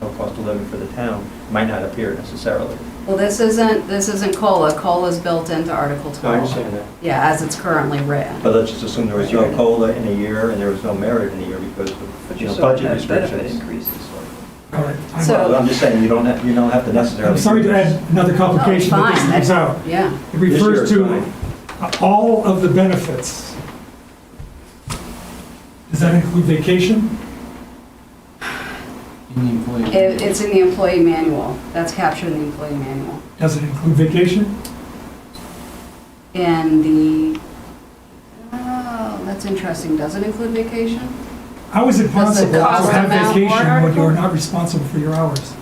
overall cost of living for the town might not appear necessarily. Well, this isn't, this isn't COLA. COLA's built into Article No, 12. Oh. Oh, I understand that. Yeah, as it's currently written. But let's just assume there was no COLA in a year and there was no merit in a year because of, But you you know, still budget have benefit restrictions. increases. All right. I'm- So- Well, I'm just saying, you don't have, you don't have to necessarily. I'm sorry to do this. add another Oh, complication, but this fine. comes out. Yeah. It This year refers is to fine. all of the benefits. Does that include vacation? In the employee. It- It's in the employee manual. That's captured in the employee manual. Does it include vacation? And the, oh, that's interesting. Doesn't include vacation? How is Does it the possible to cost have amount warrant vacation when article? you're not responsible for your hours?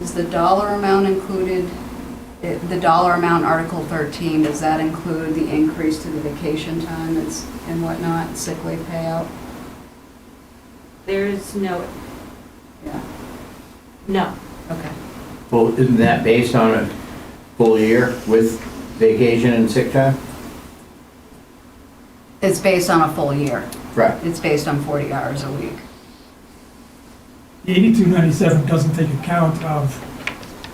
Is the dollar amount included, eh, the dollar amount, Article 13, does that include the increase to the vacation time that's- and whatnot, sick leave payout? There is no, Yeah, no. okay. Well, isn't that based on a full year with vacation and sick time? It's based on a full year. Right. It's based on 40 hours a week. The 8297 doesn't take account of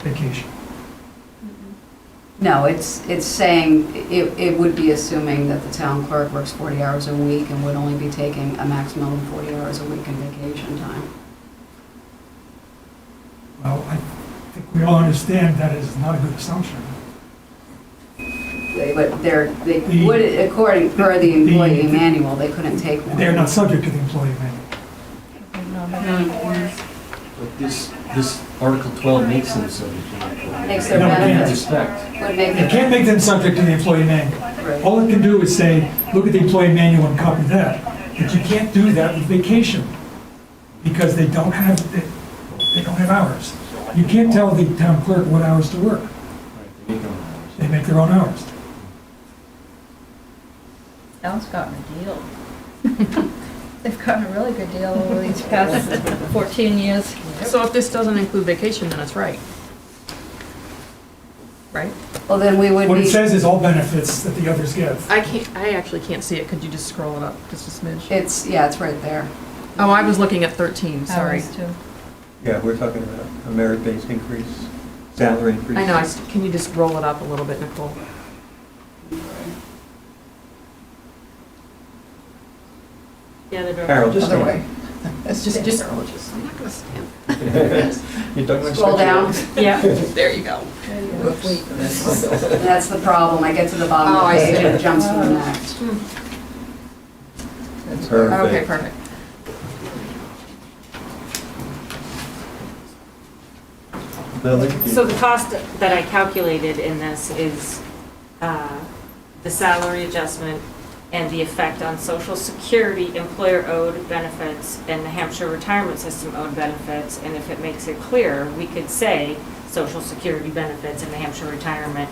vacation. No, it's, it's saying, it, it would be assuming that the town clerk works 40 hours a week and would only be taking a maximum of 40 hours a week in vacation time. Well, I think we all understand that is not a good assumption. They would, they're, they The- would, according, per the the- employee manual, they couldn't take one. They're not subject to the employee manual. Hmm. But this, this Article 12 makes them subject to that. Makes their No, we can't In benefits. respect. Would make You it. can't Oh, make them subject to the employee manual. Right. All it can do is say, look at the employee manual and copy that. But you can't do that with vacation because they don't have, they they don't have hours. You can't tell the town clerk what hours to work. They make their own hours. Town's gotten a deal. They've gotten a really good deal over these past 14 years. So if this doesn't include vacation, then it's right. Right? Well, then we would What it be, says is all benefits that the others give. I can't, I actually can't see it, could you just scroll it up, just a smidge? it's, yeah, it's right there. Oh, I was looking at 13, sorry. Hours, too. Yeah, we're talking about a merit-based increase, salary increase. I know, I s- can you just roll it up a little bit, Nicole? Yeah, the door. Carol, just. Other way. It's just, just, I'm not gonna stand. You're talking about. Scroll down. Yeah, There you go. There you go. That's the problem. I get to the bottom Oh, of I the page see. and it jumps to the next. Okay, Perfect. perfect. Lily? so the cost that I calculated in this is uh, the salary adjustment and the effect on social security, employer owed benefits, and the Hampshire retirement system owed benefits. And if it makes it clear, we could say social security benefits and the Hampshire retirement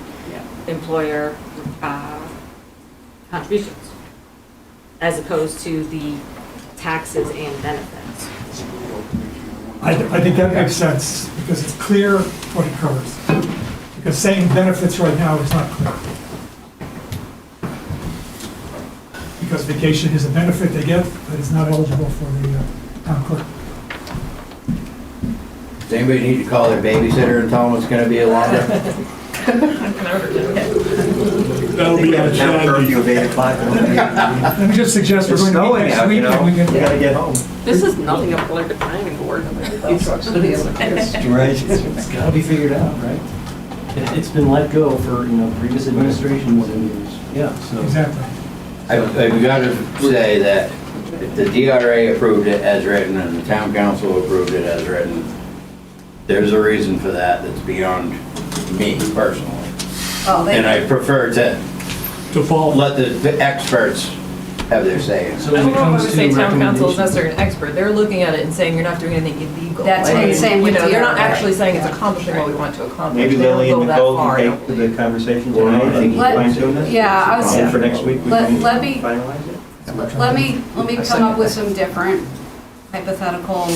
employer uh, contributions, as opposed to the taxes and benefits. I, I think that makes sense because it's clear what it covers. Because saying benefits right now is not clear. Because vacation is a benefit they get, but it's not eligible for the uh, town clerk. Does anybody need to call their babysitter and tell them it's gonna be a longer? That'll We have a town curfew of eight o'clock. Let me just suggest we're It's going to meet snowing next out, week you know, and we we can, gotta get home. This is nothing of like the planning board. Right. It's gotta be figured out, right? It- It's been let go for, you know, previous administrations and, yeah, so. exactly. I've, I've gotta say that if the DRA approved it as written and the town council approved it as written, there's a reason for that that's beyond me personally. Oh, And they, I prefer to To fall. let the- the experts have their say. So when it comes to say town council is recommendations. necessarily an expert, they're looking at it and saying you're not doing anything illegal. That's what Like, I'm saying You with know, they're not DRI. actually saying it's accomplishing what we want to accomplish. Maybe They don't Lily go and that Nicole far, I can don't take believe. the conversation tonight and Let- fine tune it. yeah, I was- And for next week, we Let- can let me- finalize it. let me, let me come up with some different hypothetical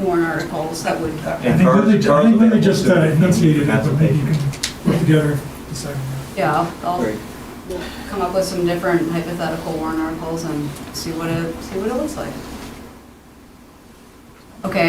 warrant articles that would, I think Carl's- Lily, I Carl's think Lily available just too. uh, enunciated it, but maybe you Consultation. can put together, decide on that. yeah, I'll- I'll Great. come up with some different hypothetical warrant articles and see what it, see what it looks like. Okay,